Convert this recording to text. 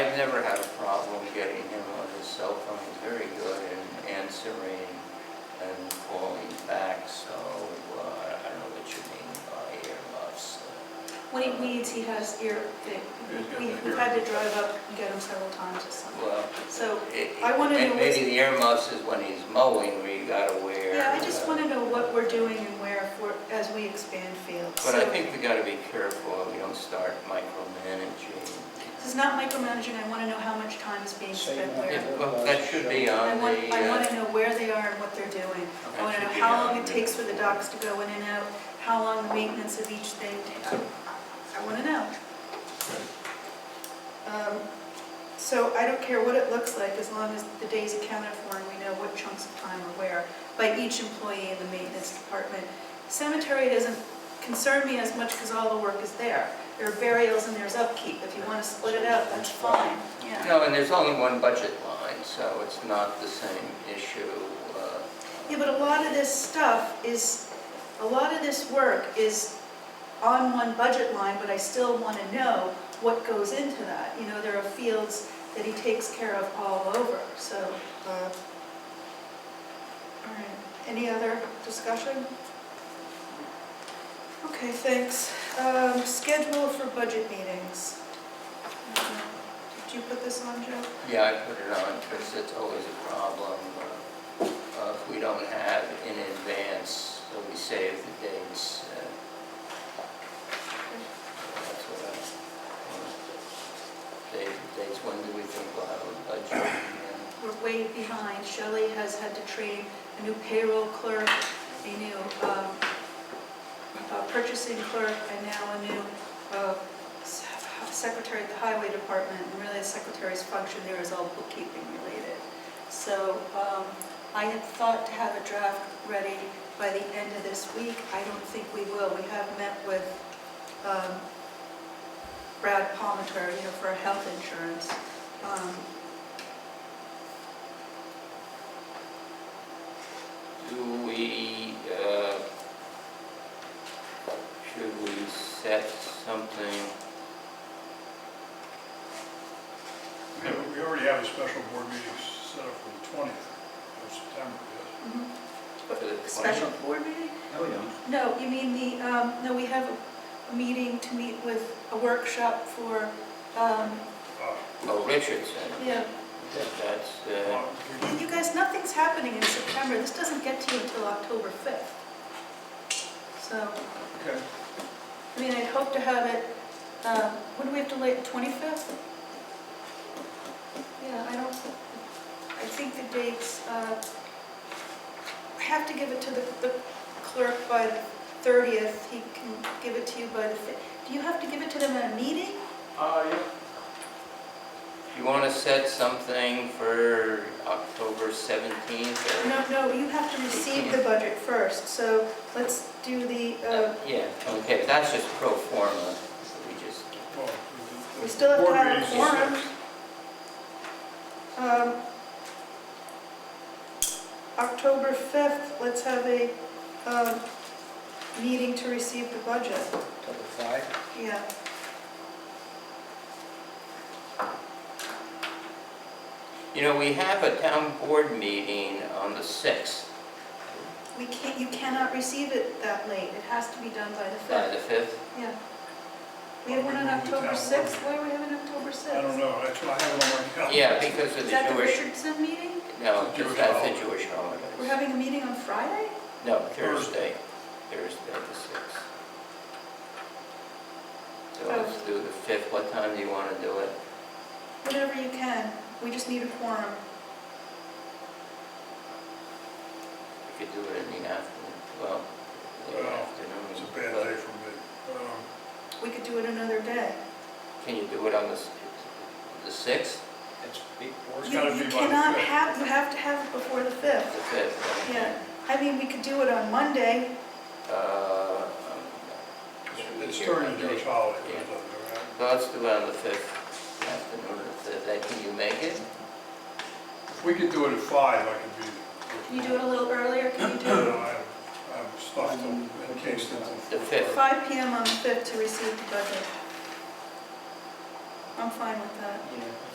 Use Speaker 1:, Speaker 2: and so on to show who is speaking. Speaker 1: never had a problem getting him on his cell phone, he's very good in answering and calling back, so uh, I don't know what you mean by uh, earmuffs.
Speaker 2: When he needs, he has ear, we- we've had to drive up and get him several times or something.
Speaker 1: Well,
Speaker 2: So,
Speaker 1: it-
Speaker 2: I wanna
Speaker 1: may-
Speaker 2: know what's-
Speaker 1: Maybe the earmuffs is when he's mowing where you gotta wear.
Speaker 2: yeah, I just
Speaker 1: uh,
Speaker 2: want to know what we're doing and where for, as we expand fields.
Speaker 1: But I
Speaker 2: So,
Speaker 1: think we gotta be careful, we don't start micromanaging.
Speaker 2: This is not micromanaging, I want to know how much time is being
Speaker 3: So you
Speaker 2: spent
Speaker 3: want
Speaker 2: where.
Speaker 3: Yeah.
Speaker 1: Yeah, Well, that should be
Speaker 2: I
Speaker 1: on the.
Speaker 2: want, I want
Speaker 1: uh,
Speaker 2: to know where they are and what they're doing. I
Speaker 1: that
Speaker 2: want to
Speaker 1: should
Speaker 2: know
Speaker 1: be
Speaker 2: how long
Speaker 1: on
Speaker 2: it
Speaker 1: the-
Speaker 2: takes for the docks to go in and out, how long the maintenance of each thing. ta- I- I want to know. Um, So I don't care what it looks like, as long as the days accounted for and we know what chunks of time are where by each employee in the maintenance department. Cemetery doesn't concern me as much because all the work is there. There are burials and there's upkeep. If you want to split it out, that's fine, yeah.
Speaker 1: uh, No, and there's only one budget line, so it's not the same issue. uh,
Speaker 2: Yeah, but a lot of this stuff is, a lot of this work is on one budget line, but I still want to know what goes into that. You know, there are fields that he takes care of all over, so. uh, All right, any other discussion? Okay, thanks. Um, Schedule for budget meetings. Uh, Did you put this on, Joe?
Speaker 1: Yeah, I put it on because it's always a problem uh, uh, if we don't have in advance, so we save the dates. uh, That's what I, uh, save the dates, when do we think we'll have a budget? and-
Speaker 2: We're way behind. Shelley has had to train a new payroll clerk, a new um, uh, purchasing clerk, and now a new uh, s- secretary at the highway department. And really, the secretary's function there is all bookkeeping related. So um, I had thought to have a draft ready by the end of this week. I don't think we will. We have met with um, Brad Palmater, you know, for our health insurance. Um,
Speaker 1: Do we, uh, should we set something?
Speaker 3: Yeah, but We already have a special board meeting set up for the twentieth of September, yes.
Speaker 2: Mhm.
Speaker 1: For the
Speaker 2: Special board meeting?
Speaker 4: Oh, yeah.
Speaker 2: No, you mean the, um, no, we have a- a meeting to meet with, a workshop for, um,
Speaker 3: Uh,
Speaker 1: Oh, Richardson,
Speaker 2: yeah.
Speaker 1: that's, uh,
Speaker 3: well, we
Speaker 2: You guys, nothing's happening in September. This doesn't get to you until October 5th. So,
Speaker 3: Okay,
Speaker 2: I mean, I'd hope to have it, um, when do we have to lay, 25th? Yeah, I don't, I think the dates, uh, I have to give it to the the clerk by the 30th. He can give it to you by the, fi- do you have to give it to them at a meeting?
Speaker 3: uh, yeah,
Speaker 1: you want to set something for October 17th? or-
Speaker 2: No, no, you have to receive the budget first, so let's do the, uh,
Speaker 1: Yeah, okay, that's just pro forma, we just,
Speaker 3: well. the- the
Speaker 2: we still have to
Speaker 3: board
Speaker 2: have a
Speaker 3: meeting's the
Speaker 2: forum.
Speaker 3: sixth.
Speaker 2: Um, October 5th, let's have a um, meeting to receive the budget.
Speaker 4: Till the five,
Speaker 2: Yeah,
Speaker 1: you know, we have a town board meeting on the 6th,
Speaker 2: we can't, you cannot receive it that late. It has to be done by the
Speaker 1: by the
Speaker 2: 5th.
Speaker 1: 5th.
Speaker 2: Yeah. We have one on
Speaker 3: Well, we moved it
Speaker 2: October
Speaker 3: down.
Speaker 2: 6th. Why do we have an October 6th?
Speaker 3: I don't know, that's what I have it on my calendar.
Speaker 1: Yeah, because of
Speaker 2: Is
Speaker 1: the
Speaker 2: that the
Speaker 1: Jewish,
Speaker 2: Richardson meeting?
Speaker 1: no,
Speaker 3: Jewish
Speaker 1: just that's the
Speaker 3: holiday.
Speaker 1: Jewish holiday.
Speaker 2: We're having a meeting on Friday?
Speaker 1: No, Thursday, Thursday the sixth. So
Speaker 2: Oh.
Speaker 1: let's do the fifth, what time do you want to do it?
Speaker 2: Whatever you can. We just need a quorum.
Speaker 1: We could do it in the afternoon, well, late
Speaker 3: Well,
Speaker 1: afternoon.
Speaker 3: It's a bad
Speaker 1: but
Speaker 3: day for me. Um,
Speaker 2: We could do it another day.
Speaker 1: Can you do it on the, s- the sixth,
Speaker 4: it's before.
Speaker 3: It's
Speaker 2: You
Speaker 3: gotta
Speaker 2: you
Speaker 3: be by the
Speaker 2: cannot
Speaker 3: 5th.
Speaker 2: have, you have to have it before the
Speaker 1: the
Speaker 2: 5th.
Speaker 1: fifth?
Speaker 2: Yeah, I mean, we could do it on Monday.
Speaker 1: Uh,
Speaker 3: it's- It's during the Jewish holiday, but uh, it doesn't matter.
Speaker 1: so let's do it on the fifth, afternoon of the fifth, Uh, can you make it?
Speaker 3: If we could do it at five, I could be there.
Speaker 2: Can you do it a little earlier? Can you do
Speaker 3: No, I'm, I'm stuffed till- in Kingston. till
Speaker 1: The fifth.
Speaker 2: 5 PM on the 5th to receive the budget? I'm fine with that.
Speaker 4: Yeah.